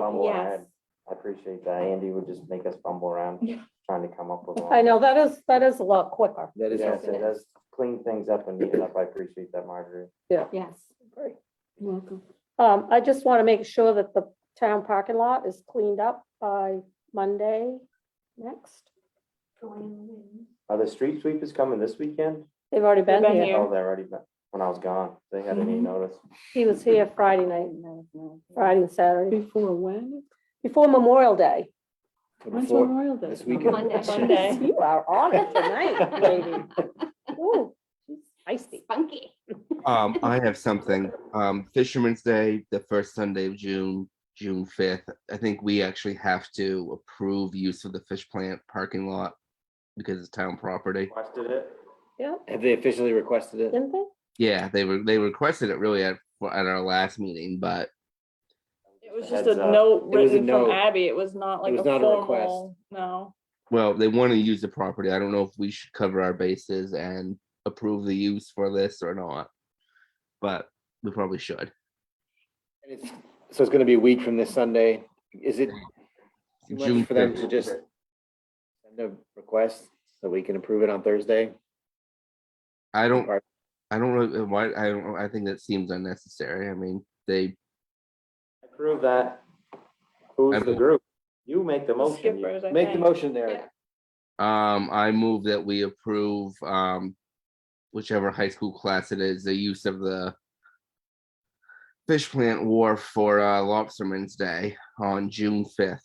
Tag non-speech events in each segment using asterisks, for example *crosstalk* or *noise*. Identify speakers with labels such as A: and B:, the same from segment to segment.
A: fumble
B: Yes.
A: around. I appreciate that. Andy would just make us fumble around,
B: Yeah.
A: trying to come up with.
C: I know, that is, that is a lot quicker.
D: That is,
A: Yes,
D: helpful.
A: it does clean things up and neat it up. I appreciate that, Marjorie.
B: Yes. You're Welcome.
C: Um, I just want to make sure that the town parking lot is cleaned up by Monday next.
A: Are the street sweepers coming this weekend?
C: They've already been
B: been
C: here.
B: here.
A: Oh, they're already, been- when I was gone, they had any
E: Mm-hmm.
B: Mhm.
A: notice.
C: He was here Friday night, Friday and Saturday,
B: Before when?
C: before Memorial Day.
B: When's
D: Before-
B: Memorial Day?
D: this weekend.
F: Monday.
B: Monday.
F: *laughs*
C: *laughs* You are on it
E: *laughs*
C: tonight, lady. Ooh, she's Feisty.
F: Funky.
G: Um, I have something. Um, Fisherman's Day, the first Sunday of June, June fifth. I think we actually have to approve use of the fish plant parking lot because it's town property.
A: Requested it.
C: Yeah,
D: have they officially requested it?
C: didn't they?
G: Yeah, they were, they requested it really at, at our last meeting, but
E: It was
A: Heads
E: just a
A: up.
E: note
D: It was a
E: written from
D: note.
E: Abby. It was not like a
D: was not a request.
E: formal, no.
G: well, they want to use the property. I don't know if we should cover our bases and approve the use for this or not. But we probably should.
D: And it's- So it's gonna be a week from this Sunday. Is it too
G: June
D: much for them to
G: 5th.
D: just send a request so we can approve it on Thursday?
G: I don't,
D: Right.
G: I don't know why, I don't, I think that seems unnecessary. I mean, they
A: Approve that. Who's
G: I
A: the
G: move-
A: group? You make the motion. you-
E: Skippers, I
D: Make the
E: think.
D: motion there.
G: Um, I move that we approve, um, whichever high school class it is, the use of the fish plant wharf for, uh, Lobsterman's Day on June fifth.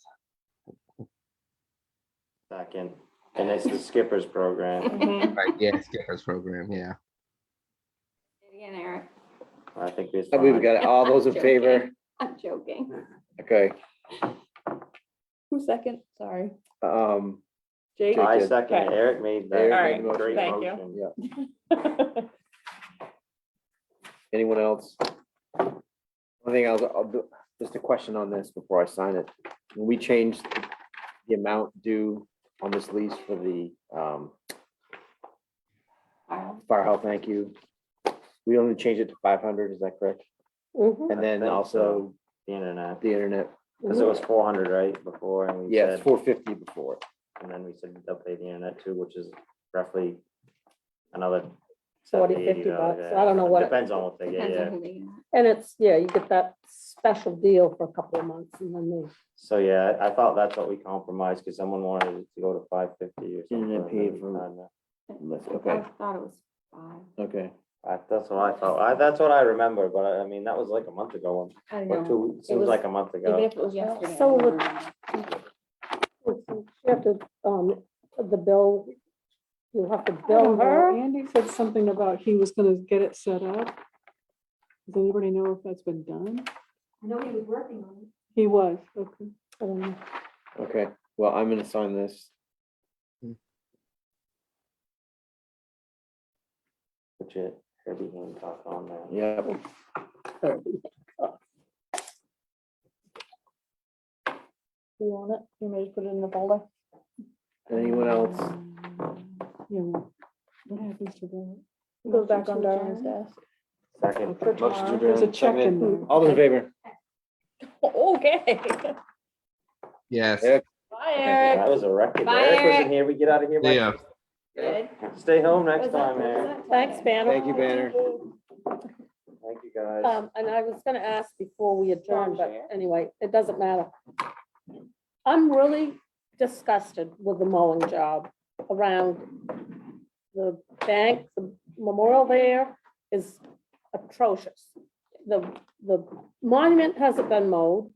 A: Second, and it's the skippers program.
D: Mm-hmm.
E: Mhm.
G: Right, yeah, skippers program, yeah.
F: Again, Eric,
A: I think it's.
D: We've
A: fine.
D: got it. all *laughs* those in favor.
F: I'm joking.
D: Okay,
E: *laughs* Who second? Sorry.
D: um,
E: Jake?
A: I
D: Good.
A: second. it.
E: Okay.
A: Eric made that.
D: Eric made the
A: Great
E: motion. Thank you.
A: motion.
D: *laughs* anyone else? One thing else, I'll do, just a question on this before I sign it. When we changed the amount due on this lease for the, um,
F: Carl,
D: Fire Hall, thank you. We only changed it to five hundred, is that correct?
C: Mhm.
D: And
A: I
D: then
A: think
D: also
A: The internet,
D: the internet,
A: because it was four hundred, right, before, and we
D: yes,
A: said,
D: four fifty before.
A: and then we said they'll pay the internet too, which is roughly another.
C: 40,
A: 70,
C: 50
A: $80,
C: bucks.
A: yeah.
C: I don't know what it-
A: Depends on what they get,
F: depends on
A: yeah.
F: who they are.
C: And it's, yeah, you get that special deal for a couple of months and then they
A: So, yeah, I thought that's what we compromised, because someone wanted it to go to five fifty or something.
D: Internet
A: and then
D: paid
A: we
D: for-
A: found that.
D: Let's-
F: I
D: okay.
F: Thought it was five.
D: Okay.
A: I, uh, that's what I thought, I, that's what I remember, but I, I mean, that was like a month ago, um,
F: I
A: or
F: don't know.
A: two, seems
F: was-
A: like a month
F: Even
A: ago.
F: if it was yesterday. I
C: So
F: don't
C: would-
F: know.
C: You have to, um, the bill, you have to
B: I don't
C: bill
B: know.
C: her.
B: Oh, Andy said something about he was gonna get it set up. Does anybody know if that's been done?
F: I know he was working on it.
B: He was, okay.
C: I don't know.
D: Okay, well, I'm gonna sign this.
A: Which it, Herbie Hancock on there.
D: Yep.
C: You want it? You may just put it in the folder.
D: Anyone else?
B: Yeah. What happens to that?
C: Goes back
F: Motion
C: on
F: to
C: Darren's
F: adjourn?
C: desk.
A: Second.
B: For
D: Motion to
B: There's a
D: adjourn,
B: check
D: seconded.
B: in
F: Hmm.
B: there.
D: All those in favor?
C: *laughs*
E: Okay.
G: Yes,
D: Yeah.
E: Bye, Eric.
A: That was a record.
F: Bye,
A: Eric
F: Eric.
A: wasn't here, we get out of here. by-
G: Yeah.
F: Good.
A: Stay home
F: Was
A: next
F: that-
A: time,
F: was
A: Eric.
F: that
C: Thanks,
F: today?
C: Banner.
D: Thank you, Banner.
A: Thank you, guys.
C: Um, and I was gonna ask before we adjourn, but
F: Sure.
C: anyway, it doesn't matter. I'm really disgusted with the mowing job around the bank, the memorial there is atrocious. The, the monument hasn't been mowed.